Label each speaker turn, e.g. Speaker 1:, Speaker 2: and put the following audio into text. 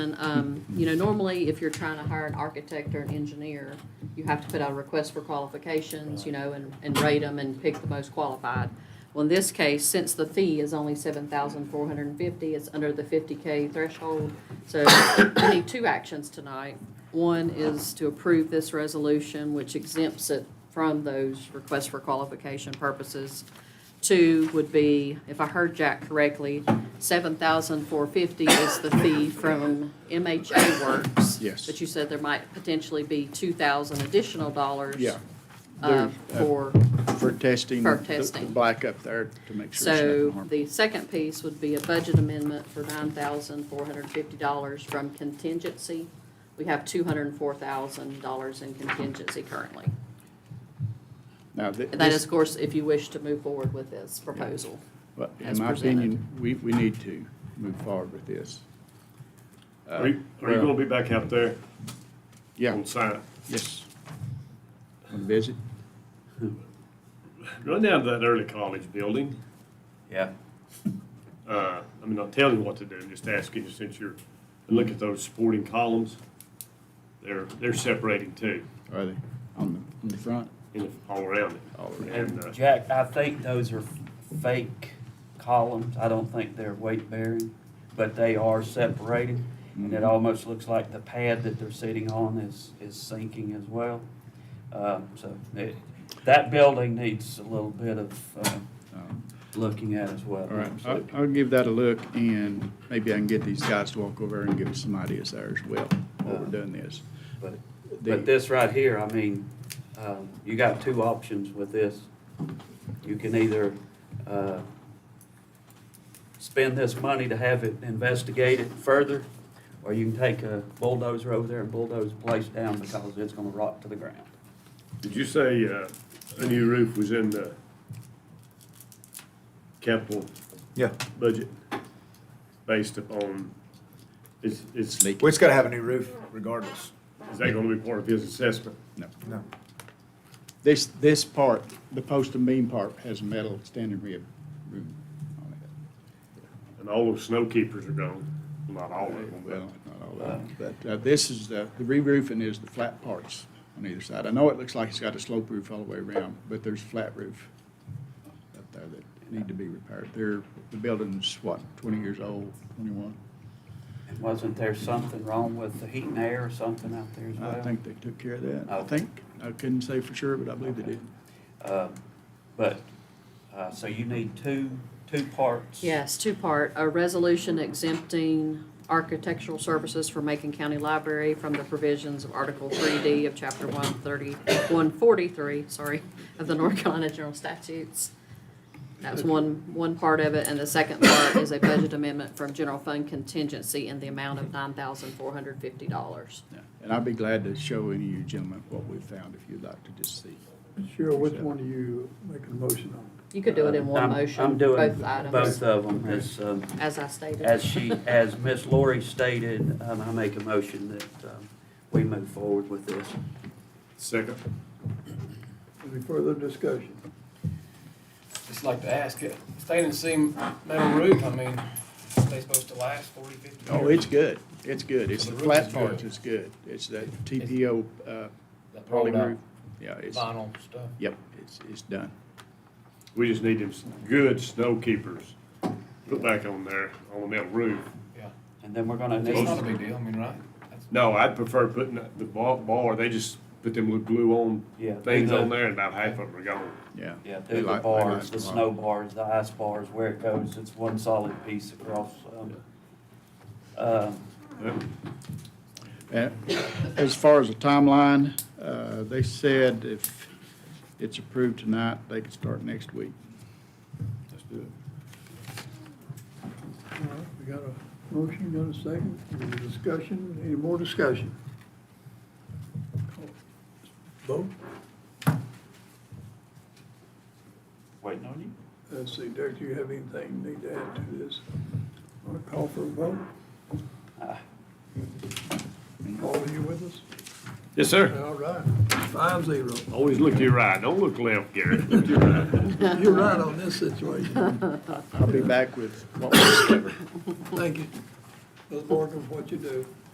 Speaker 1: And, um, you know, normally if you're trying to hire an architect or an engineer, you have to put out a request for qualifications, you know, and, and rate them and pick the most qualified. Well, in this case, since the fee is only seven thousand four hundred and fifty, it's under the fifty K threshold. So we need two actions tonight. One is to approve this resolution, which exempts it from those requests for qualification purposes. Two would be, if I heard Jack correctly, seven thousand four fifty is the fee from MHA Works.
Speaker 2: Yes.
Speaker 1: But you said there might potentially be two thousand additional dollars.
Speaker 2: Yeah.
Speaker 1: Uh,
Speaker 2: There's, uh,
Speaker 1: for,
Speaker 2: For testing.
Speaker 1: For
Speaker 2: the-
Speaker 1: testing.
Speaker 2: The black up there to make sure it's
Speaker 1: so
Speaker 2: nothing harmful.
Speaker 1: the second piece would be a budget amendment for nine thousand four hundred fifty dollars from contingency. We have two hundred and four thousand dollars in contingency currently.
Speaker 2: Now, thi-
Speaker 1: And that is,
Speaker 2: this,
Speaker 1: of course, if you wish to move forward with this proposal.
Speaker 2: well, in
Speaker 1: as
Speaker 2: my
Speaker 1: presented.
Speaker 2: opinion, we, we need to move forward with this. Uh,
Speaker 3: Are you, are you
Speaker 2: well,
Speaker 3: gonna be back out there
Speaker 2: Yeah,
Speaker 3: on site?
Speaker 2: yes. Want to visit?
Speaker 3: Run down to that early college building.
Speaker 4: Yeah,
Speaker 3: Uh, I mean, I'll tell you what to do, I'm just asking you since you're, and look at those sporting columns. They're, they're separating too,
Speaker 2: Are they on the, on the front?
Speaker 3: in, the- all around it.
Speaker 2: All around.
Speaker 3: And, uh,
Speaker 4: Jack, I think those are fake columns. I don't think they're weight bearing, but they are separated. And it almost looks like the pad that they're sitting on is, is sinking as well. Um, so it, that building needs a little bit of, um,
Speaker 2: Um,
Speaker 4: looking at as well.
Speaker 2: All right, Uh, I'll, I'll give that a look and maybe I can get these guys to walk over and give us some ideas there as well while we're doing this.
Speaker 4: But,
Speaker 2: The-
Speaker 4: but this right here, I mean, um, you got two options with this. You can either, uh, spend this money to have it investigated further, or you can take a bulldozer over there and bulldoze the place down because it's gonna rot to the ground.
Speaker 3: Did you say, uh, a new roof was in the capital
Speaker 5: Yeah,
Speaker 3: budget based upon, is, is, is
Speaker 2: Leak.
Speaker 5: well, it's gotta have a new roof regardless.
Speaker 3: that gonna be part of his assessment?
Speaker 2: No.
Speaker 5: No.
Speaker 2: This, this part, the post and beam part has metal standing rib room on it.
Speaker 3: And all those snow keepers are gone, not all of them, but.
Speaker 2: Well, not all of them, but uh, this is, the the re-roofing is the flat parts on either side. I know it looks like it's got a slope roof all the way around, but there's flat roof up there that need to be repaired. They're, the building's, what, twenty years old, twenty-one?
Speaker 4: And Wasn't there something wrong with the heat and air or something out there as well?
Speaker 2: I think they took care of that, I
Speaker 4: Oh.
Speaker 2: think. I couldn't say for sure, but I believe they did.
Speaker 4: Uh, but, uh, so you need two, two parts.
Speaker 1: Yes, two-part, a resolution exempting architectural services for Macon County Library from the provisions of Article 3D of Chapter 130, 143, sorry, of the North Carolina General Statutes. That was one, one part of it, and the second part is a budget amendment from general fund contingency in the amount of $9,450.
Speaker 2: Yeah. And I'd be glad to show any of you gentlemen what we found if you'd like to just see.
Speaker 6: Cheryl, which one are you making a motion on?
Speaker 1: You could do it in one
Speaker 4: Uh, I'm-
Speaker 1: motion,
Speaker 4: I'm doing
Speaker 1: both items,
Speaker 4: both of them, It's, um,
Speaker 1: as I stated.
Speaker 4: As she, as Miss Lori stated, um, I make a motion that, um, we move forward with this.
Speaker 3: Second.
Speaker 6: Any further discussion?
Speaker 7: Just like to ask it, standing seam metal roof, I mean, are they supposed to last 40, 50 years?
Speaker 2: Oh, it's good. It's good. It's
Speaker 7: So
Speaker 2: the
Speaker 7: the roof
Speaker 2: flat
Speaker 7: is
Speaker 2: parts
Speaker 7: good.
Speaker 2: is good. It's that TPO, uh,
Speaker 7: That
Speaker 2: poly
Speaker 7: rolled out
Speaker 2: roof. Yeah, it's,
Speaker 7: Vinyl stuff.
Speaker 2: yep, it's, it's done.
Speaker 3: We just need them s- good snow keepers put back on there, on the metal roof.
Speaker 7: Yeah.
Speaker 4: And then we're gonna
Speaker 7: It's not a
Speaker 4: need,
Speaker 7: big deal, I mean, right? That's-
Speaker 3: No, I'd prefer putting the the bar, bar, they just put them with glue on
Speaker 4: Yeah, they
Speaker 3: things on
Speaker 4: do.
Speaker 3: there and about half of them are gone.
Speaker 2: Yeah.
Speaker 4: yeah,
Speaker 2: They
Speaker 4: do the
Speaker 2: like- they like
Speaker 4: bars, the
Speaker 2: a lot.
Speaker 4: snow bars, the ice bars, where it goes, it's one solid piece across, um, um,
Speaker 2: Uh, As far as the timeline, uh, they said if it's approved tonight, they could start next week.
Speaker 3: Let's do it.
Speaker 6: All right, we got a motion, got a second, any discussion, any more discussion? Vote,
Speaker 4: waiting on you.
Speaker 6: let's see, Derek, do you have anything you need to add to this? Want to call for a vote? Paul, are you with us?
Speaker 3: Yes, sir.
Speaker 6: All right, five zero.
Speaker 3: Always look to your right, don't look left, Gary.
Speaker 6: You're right on this situation,
Speaker 2: I'll be back with what we discovered.
Speaker 6: thank you. Doesn't matter what you do.